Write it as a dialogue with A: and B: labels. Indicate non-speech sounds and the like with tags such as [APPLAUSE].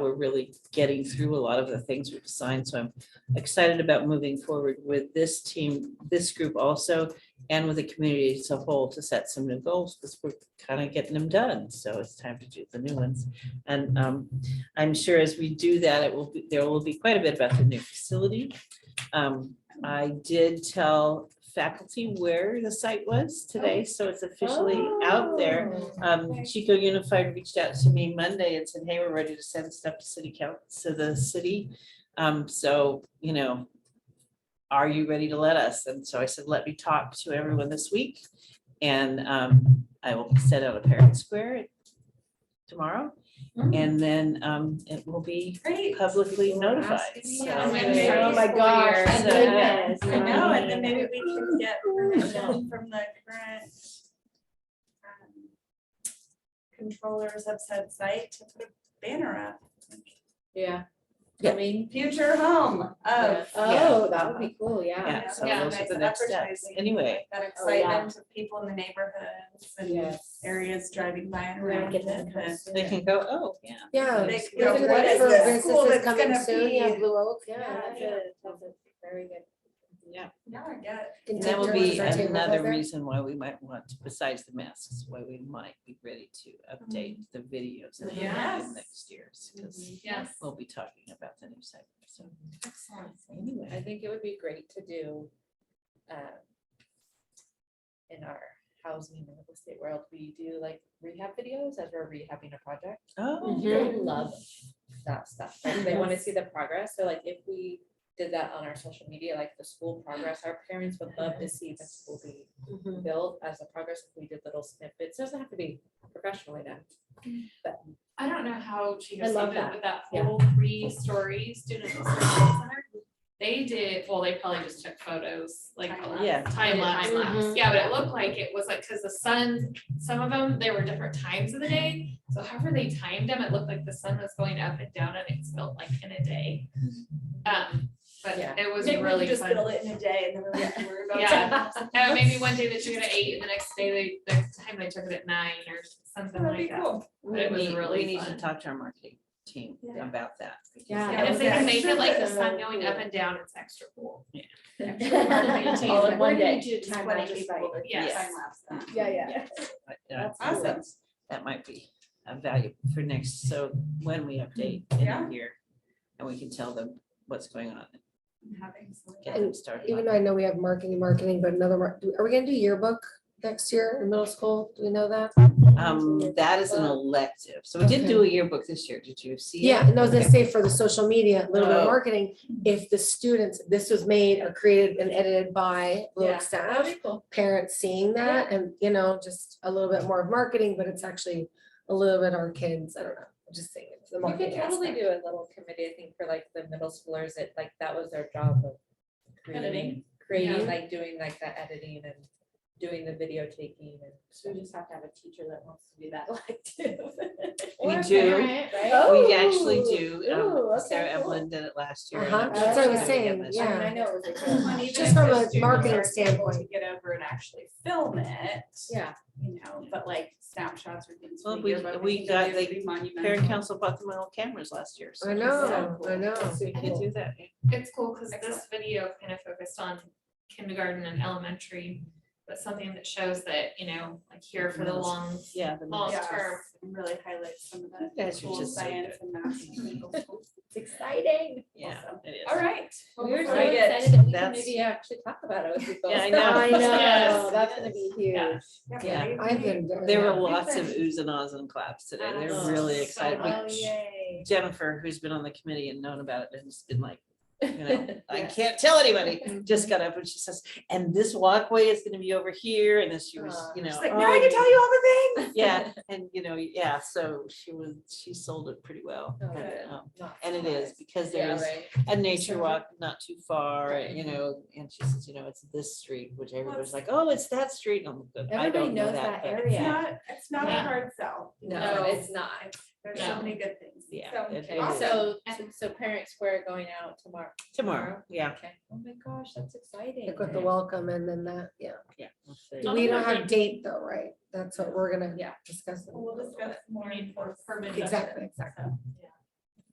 A: we're really getting through a lot of the things we've assigned. So I'm excited about moving forward with this team, this group also, and with the community as a whole to set some new goals, because we're kind of getting them done. So it's time to do the new ones. And um, I'm sure as we do that, it will, be there will be quite a bit about the new facility. Um, I did tell faculty where the site was today, so it's officially out there.
B: Oh.
A: Um, Chico Unified reached out to me Monday and said, hey, we're ready to send stuff to city council, to the city. Um, so, you know, are you ready to let us? And so I said, let me talk to everyone this week. And, um, I will set out a parent square tomorrow. And then, um, it will be
C: Great.
A: publicly notified.
C: asking me.
A: So-
C: Oh,
B: my
D: Oh my gosh,
A: gosh.
D: thank
A: So-
D: goodness.
C: I know, and then maybe we can get permission from the current um, controllers of said site to put a banner up.
B: Yeah.
A: Yeah.
B: I mean,
C: Future home
B: yeah.
C: of.
D: Oh, that would be cool, yeah.
A: Yeah, so
B: Yeah,
A: those are
C: nice
A: the next steps.
C: advertising.
A: Anyway,
C: That
B: Oh, yeah.
C: excitement of people in the neighborhoods and
B: Yes.
C: areas driving by and
B: We're gonna
C: around.
B: get that
C: and
B: kind of
C: the-
B: stuff.
A: they can go, oh, yeah.
D: Yeah.
C: They-
D: just
C: you
B: know,
D: look at
B: what
D: that
B: is
D: for
B: the
D: businesses
C: school that's
D: coming
C: gonna
D: soon, yeah,
C: be?
D: Blue Oak, yeah,
C: Yeah,
D: that's
C: yeah.
D: a, that's a very good.
A: Yeah.
C: Yeah, I get it.
D: Can
A: And
D: take
A: That will
D: turns
A: be
D: or take over
A: another
D: there?
A: reason why we might want, to- besides the masks, why we might be ready to update the videos that we have in
C: Yes.
A: next year's, because
B: Yes,
A: we'll be talking about the new site, so.
C: Excellent.
A: Anyway,
B: I think it would be great to do. um, In our housing and real estate world, we do like rehab videos as we're rehabbing a project.
A: oh,
B: They love that stuff. Like they want to see the progress. So like if we did that on our social media, like the school progress, our parents would love to see the school be built as a progress. If we did little snippets, doesn't have to be professionally done.
E: I don't know how she
D: I
E: goes
D: love
E: with it,
D: that.
E: but that
B: Yeah.
E: whole
C: [LAUGHS]
E: three-story student service center. They did, well, they probably just took photos, like
C: Time
E: a
C: lapse.
A: Yeah.
E: time lapse, time lapse,
C: Mm-hmm.
D: Mhm.
E: yeah, but it looked like it was like, cause the sun, some of them, there were different times of the day. So however they timed them, it looked like the sun was going up and down and it's built like in a day.
C: Mm-hmm.
E: Um, but
B: Yeah.
E: it was
C: Maybe we
E: really
C: could just build
E: fun.
C: it in a day and then we don't have to worry about. [LAUGHS]
E: Yeah.
C: it.
E: Uh, maybe one day they took it at eight and the next day they, the time they took it at nine or something
C: That'd be
E: like that.
C: cool.
A: we
E: It was
A: need, we
E: really
A: need to
E: fun.
A: talk to our marketing team
C: Yeah.
A: about that. because
D: Yeah.
E: And if they can make it like the [LAUGHS] sun
D: Yeah.
E: going up and down, it's extra cool.
A: Yeah.
E: [LAUGHS]
D: All in
C: We're
D: one
C: gonna
D: day.
C: need you to
D: Time
C: sweat
D: lapse
C: it,
D: site.
C: people, but
E: Yes.
C: time lapse that.
D: Yeah, yeah.
A: uh, I- I
D: That's
A: think
C: Awesome.
A: That might be a value for next, so when we update in
C: Yeah.
A: a year, and we can tell them what's going on, and
C: I'm having some-
A: get them started.
D: Even though I know we have marketing, marketing, but another, mar- do- are we gonna do yearbook next year in middle school? Do we know that?
A: Um, that is an elective, so we did do a yearbook this year, did you see? it?
D: Yeah, and I was gonna
A: Okay.
D: say for the social media, a little bit
A: Oh.
D: of marketing, if the students, this was made or created and edited by Blue
C: Yeah.
D: Oak staff. Parents seeing that and, you know, just a little bit more of marketing, but it's actually a little bit our kids, I don't know, I'm just saying. it's the
B: You could
D: marketing
B: totally
D: aspect.
B: do a little committee, I think, for like the middle schoolers, it like that was their job of creating,
C: Editing.
B: creating, like doing like that editing and doing the video taking and. So we just have to have a teacher that wants to do that [LAUGHS] like too.
A: We
E: Or a
A: do.
E: parent, right?
A: We actually
D: Oh,
A: do. um,
D: ooh, okay,
A: Sarah
D: cool.
A: Evelyn did it last year. and
D: Uh-huh,
A: I'm
D: that's
A: sure
D: what I was
A: she's doing it
D: saying,
A: this
D: yeah.
A: year.
B: I mean, I know it was a [LAUGHS] good
C: And
B: one.
C: even
D: Just
C: if
D: from
C: the
D: a
C: students
D: marketing
C: aren't able to
D: standpoint.
C: Get over and actually film it.
B: Yeah.
C: You know, but like snapshots or things.
A: Well,
C: from
A: we-
C: yearbook, I
A: we
C: think
A: got-
C: it'd
A: they-
C: be
A: Parent
C: monumental.
A: council bought them all cameras last year. so
D: I
A: it's uh,
D: know,
A: so
D: I know.
A: cool. So we could do that.
E: It's cool because this
C: Excellent.
E: video kind of focused on kindergarten and elementary, but something that shows that, you know, like here for the
A: Middle
E: long.
A: Yeah. the
E: Oh,
A: master.
E: term.
C: Yes, and Really highlight some of
A: You
C: the
A: guys should
C: cool
A: just save
C: science and math.
A: [LAUGHS]
C: and legal schools.
B: It's exciting.
A: Yeah,
C: Awesome.
A: it is.
C: All right. well,
B: We were so
C: before we get-
B: excited that we can
A: That's-
B: maybe actually talk about it with people.
A: Yeah, I know.
D: I know,
B: Oh,
E: Yes.
D: that's gonna be huge.
E: Yeah.
A: Yeah.
C: right,
D: I've
C: we-
D: been. doing
A: There were
D: that.
A: lots of oohs and ahs and claps today. They're really
E: Oh,
A: excited.
E: so
A: We-
B: Oh, yay.
A: Jennifer, who's been on the committee and known about it, and has been like, you know, I can't tell anybody, just got up and she says, and this walkway is gonna be over here, and then she was, you know.
C: She's like,
A: "Oh,
C: now I can tell you all the things.
A: Yeah, and you know, yeah, so she was, she sold it pretty well.
B: Oh,
A: and,
B: good.
A: um,
B: Not
A: And it is, because
B: Yeah,
A: there's
B: right.
A: a nature
B: Sure.
A: walk not too far,
B: Right.
A: you know, and she says, you know, it's this street, which everybody's like, oh, it's that street. I'm good, I
B: Everybody
A: don't know
B: knows
A: that.
B: that
A: but-
C: It's
B: area.
C: not, it's not a
E: Yeah.
C: hard sell.
B: No, it's not.
C: There's so
E: No.
C: many good things.
A: Yeah,
C: So,
A: it- it
B: Okay,
A: is.
C: Awesome.
B: so, and so Parent Square going out tomorrow.
A: Tomorrow, yeah,
B: Okay. Oh my gosh, that's exciting.
D: Like with the welcome and then that, yeah.
A: yeah. we'll see.
E: Oh,
D: We don't
E: okay.
D: have date though, right? That's what we're gonna, yeah, discuss.
C: We'll discuss more.
E: I mean, for permanent.
D: Exactly, exactly.
E: Yeah.